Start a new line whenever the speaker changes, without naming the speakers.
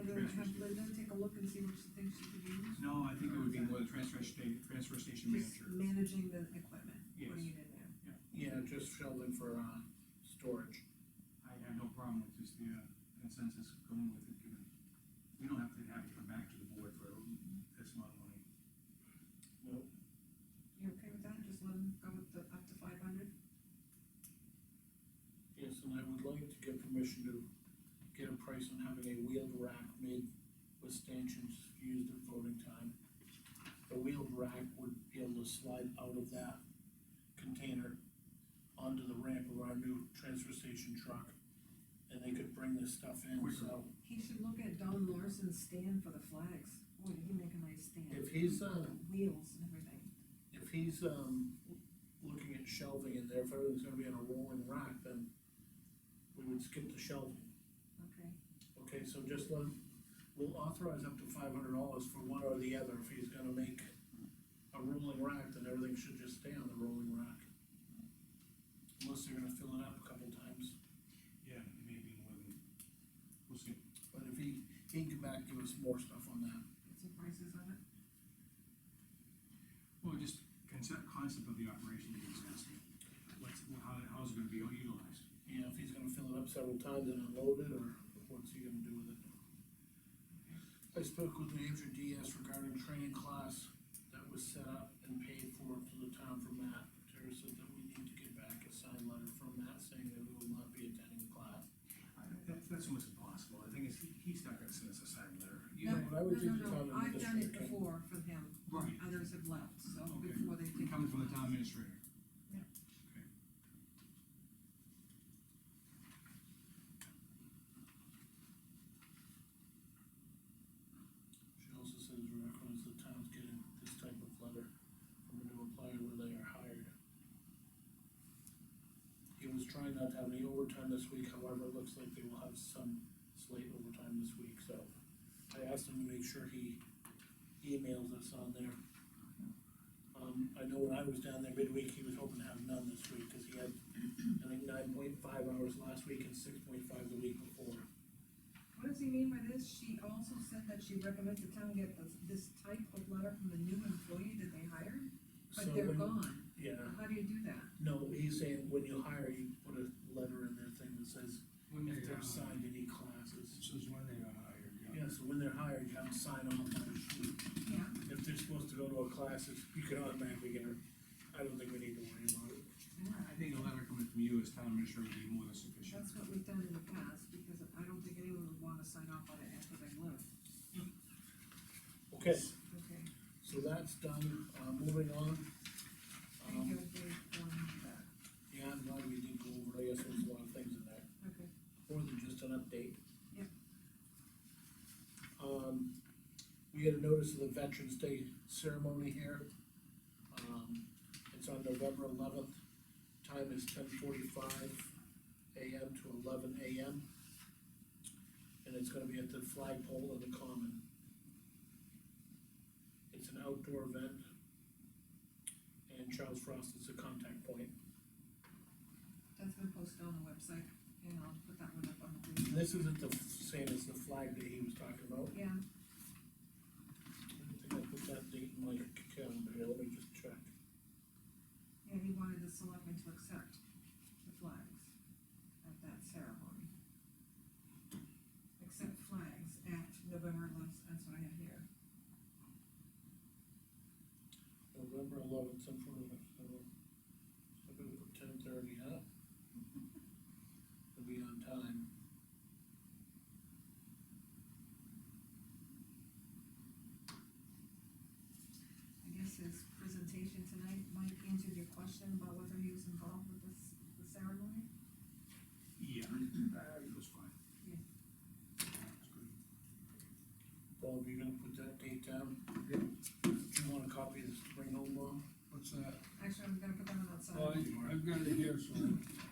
Linda take a look and see what she thinks she could use?
No, I think it would be more the transfer station, transfer station
Just
manager.
managing the equipment, putting
Yes.
it in there.
Yeah, just Sheldon for, uh, storage.
I have no problem with just the uh, consensus going with it, given, we don't have to have it come back to the board for this amount of money.
You okay with that? Just let them go with the up to five hundred?
Yes, and I would like to get permission to get a price on having a wheeled rack made with stanchions used at voting time. The wheeled rack would be able to slide out of that container onto the ramp of our new transfer station truck. And they could bring this stuff in, so
He should look at Don Larson's stand for the flags. Boy, did he make a nice stand.
if he's, uh,
The Wheels and everything.
if he's, um, looking at shelving in there, if everything's gonna be on a rolling rack, then we would skip the shelving.
Okay.
Okay, so just let, we'll authorize up to five hundred dollars for one or the other, if he's gonna make a rolling rack, then everything should just stay on the rolling rack. Unless they're gonna fill it up a couple times,
Yeah, it may be more than, we'll see.
but if he, he can come back, and give us more stuff on that.
Get some prices on it.
Well, just concept, concept of the operation that he's asking. What's, well, how, how's it gonna be utilized?
You know, if he's gonna fill it up several times and unload it, or what's he gonna do with it? I spoke with New Hampshire DS regarding training class that was set up and paid for to the town from Matt. Terry said that we need to get back a signed letter from Matt saying that we will not be attending class.
I- That, that's almost impossible. The thing is, he- he's not gonna send us a signed letter. You
No,
know,
but I would
no,
think
no,
the town
no. I've done it
administrator can-
before for him.
Right.
Others have left, so
Okay.
before they
It
take.
comes from the town administrator.
Yeah.
Okay.
She also says we recommends the town's getting this type of letter from a new employer when they are hired. He was trying not to have any overtime this week, however, it looks like they will have some slate overtime this week, so I asked him to make sure he emails us on there. Um, I know when I was down there midweek, he was hoping to have none this week, cause he had, I think, nine point five hours last week and six point five the week before.
What does he mean by this? She also said that she recommends the town get this, this type of letter from the new employee that they hired, but
So
they're
when-
gone.
Yeah.
How do you do that?
No, he's saying when you hire, you put a letter in their thing that says,
When
if they're
uh,
assigned any
This
classes.
is when they are hired, yeah.
Yeah, so when they're hired, you have to sign on the sheet.
Yeah.
If they're supposed to go to a class, it's- you can automatically get her. I don't think we need to worry about it.
I think a letter coming from you as town administrator would be more than sufficient.
That's what we've done in the past, because I don't think anyone would wanna sign off on it after they left.
Okay,
Okay.
so that's done. Uh, moving on.
Thank you,
Um,
Dave, um, that.
yeah, I'm glad we did go over, I guess there's a lot of things in there.
Okay.
more than just an update.
Yep.
Um, we had a notice of the Veterans Day ceremony here. Um, it's on November eleventh, time is ten forty-five AM to eleven AM. And it's gonna be at the flagpole in the common. It's an outdoor event. And Charles Frost is the contact point.
That's been posted on the website, and I'll put that one up on the. blue.
This isn't the same as the flag that he was talking about.
Yeah,
I think I put that date in my calendar, here, let me just check.
yeah, he wanted the selectmen to accept the flags at that ceremony. Accept flags at November eleventh, that's what I have here.
November eleventh, some sort of, so, I'm gonna put ten thirty, huh? It'll be on time.
I guess his presentation tonight, Mike answered your question about whether he was involved with this, the ceremony?
Yeah, uh, it was fine.
Yeah.
It's good.
Bob, you gonna put that date down?
Yep.
Do you want a copy of this to bring home, Bob?
What's that?
Actually, I'm gonna put that one outside.
Oh, I- I've got it here, so